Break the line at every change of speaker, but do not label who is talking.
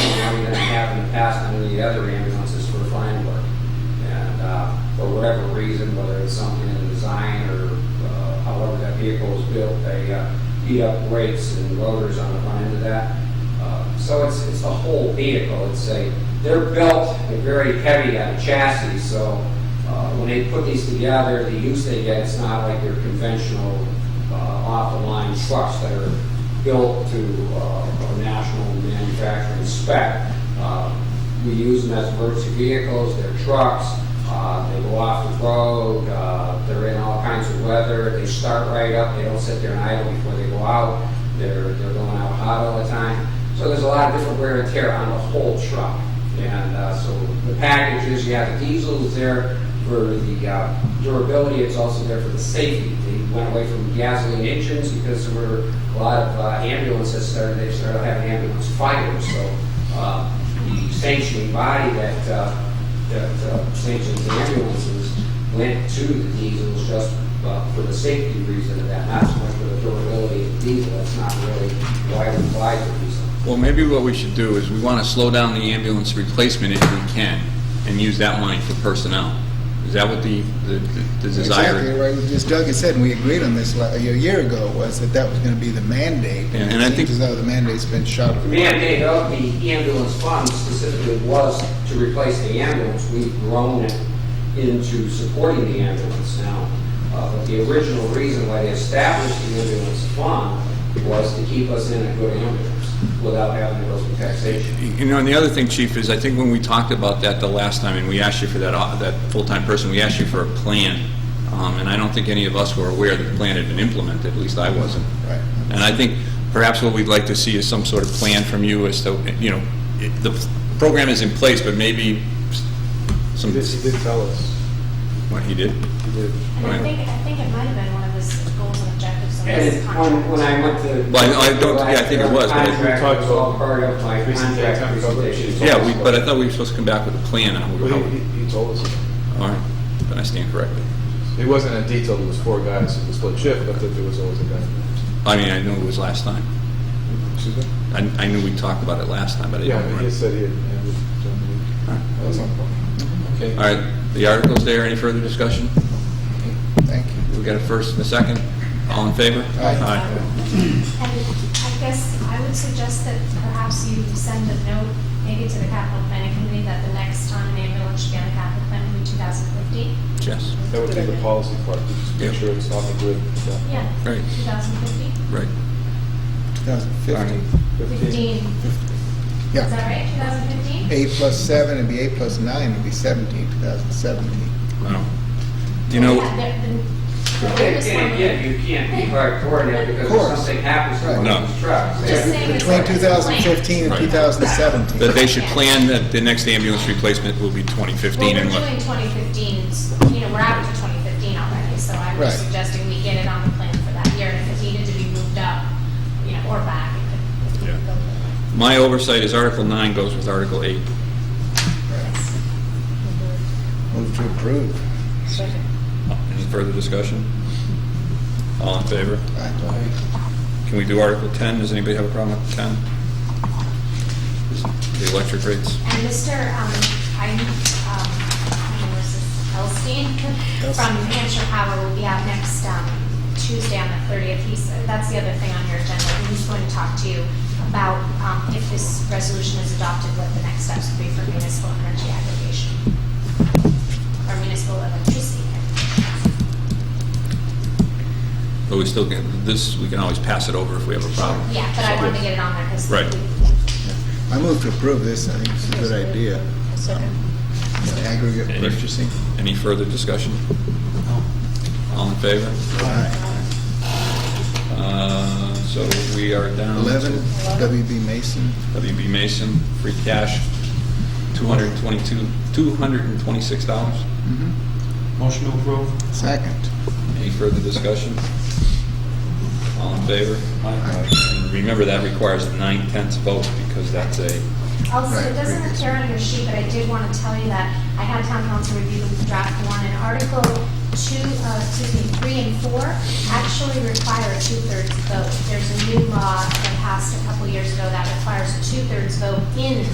past on the other ambulances for fine work. And, uh, for whatever reason, whether it's something in the design or, uh, however that vehicle was built, they, uh, beat up brakes and rotors on the front end of that. Uh, So it's, it's the whole vehicle. It's a, they're built very heavy on a chassis, so, uh, when they put these together, the use they get, it's not like your conventional, uh, off-the-line trucks that are built to, uh, a national manufacturing spec. Uh, We use them as emergency vehicles, they're trucks, uh, they go off the road, uh, they're in all kinds of weather, they start right up, they don't sit there and idle before they go out, they're, they're going out hot all the time. So there's a lot of different wear and tear on the whole truck. And uh, so the package is, you have the diesel is there for the uh, durability, it's also there for the safety. They went away from gasoline engines because there were a lot of uh, ambulances started, they started having ambulance fires. So uh, the sanctioning body that, uh, that uh, sanctions the ambulances went to the diesels just uh, for the safety reason of that, not so much for the durability of the diesel. That's not really why we applied the diesel.
Well, maybe what we should do is we want to slow down the ambulance replacement if we can and use that money for personnel. Is that what the, the the
Exactly,
desire?
right, as Doug had said, and we agreed on this like, a year ago, was that that was gonna be the mandate.
Yeah, and I
It seems
think-
As though the mandate's been shot.
The mandate of the ambulance fund specifically was to replace the ambulance. We've grown it into supporting the ambulance now. Uh, But the original reason why they established the ambulance fund was to keep us in a good ambulance without having to go through taxation.
You know, and the other thing, Chief, is I think when we talked about that the last time, and we asked you for that, o- that full-time person, we asked you for a plan, um, and I don't think any of us were aware that the plan had been implemented, at least I wasn't.
Right.
And I think perhaps what we'd like to see is some sort of plan from you as to, you know, it- the program is in place, but maybe some...
He did, he did tell us.
What, he did?
He did.
And I think, I think it might have been one of his goals and objectives of
And
this
when, when I
contract.
went to.
Well, I- I don't- yeah, I think it was, but-
Contract was all part of my
Presentation,
contract
coverage.
presentation.
Yeah, we, but I thought we were supposed to come back with a plan on
But
how,
he, he- he told us.
all right, then I stand corrected.
It wasn't in detail, it was four guys, it was split shift, but that there was always a guy.
I mean, I knew it was last time.
Excuse me?
I, I knew we talked about it last time, but I
Yeah,
didn't
I mean, he
remember.
had said he had, and we-
All right.
that was on the phone.
All right, the article's there, any further discussion?
Thank you.
We got a first and a second, all in favor?
Aye.
And I guess I would suggest that perhaps you send a note, maybe to the capital planning committee, that the next time an ambulance should be on the capital plan would be 2015.
Yes,
That would be the policy part, to just make
Yeah.
sure it's off the grid. so.
Yeah,
Right.
2015,
right. All right.
2015.
15, is
Yeah,
that right, 2015?
eight plus seven, it'd be eight plus nine, it'd be seventeen, two thousand seventeen.
Wow. Do you know,
Yeah, the- the- the
And
latest one-
again, you can't be hard coordinated because
Of
if
course.
something happens to one
Right.
of these trucks. they have
Just
to
saying it's
Between
like a
two thousand fifteen and
Right.
two thousand seventeen.
that they should plan that the next ambulance replacement will be 2015 and
Well, we're doing
what?
2015, 's, you know, we're out to 2015 already, so I'm
Right.
just suggesting we get it on the plan for that year, and if it needed to be moved up, you know, or back, it could, it could
Yeah.
go.
My oversight is Article 9 goes with Article 8.
Move to approve.
Any further discussion? All in favor?
Aye.
Can we do Article 10? Does anybody have a problem with 10? The electric rates?
And Mr., um, I, um, where's this, Elstein from
Elstein.
New Hampshire Power will be out next, um, Tuesday on the thirtieth. He's, that's the other thing on your agenda. He's going to talk to you about, um, if this resolution is adopted, what the next steps would be for municipal energy aggregation. Or municipal electricity. aggregation.
But we still can, this, we can always pass it over if we have a problem.
Yeah, but I wanted to get it on there because.
Right.
I move to approve this, I think it's a good idea. Um, the Aggregate
Any-
purchasing.
Any further discussion? All in favor?
Aye.
Uh, So we are down. to
11, WB Mason.
WB Mason, free cash, 222, $226.
Motion to approve.
Second.
Any further discussion? All in favor? And remember, that requires a nine-tenths vote because that's a,
Also,
Right,
it doesn't
previous.
appear on your sheet, but I did want to tell you that I had town council review the draft one, and Article two, uh, excuse me, three and four actually require a two-thirds vote. There's a new law that passed a couple years ago that requires a two-thirds vote in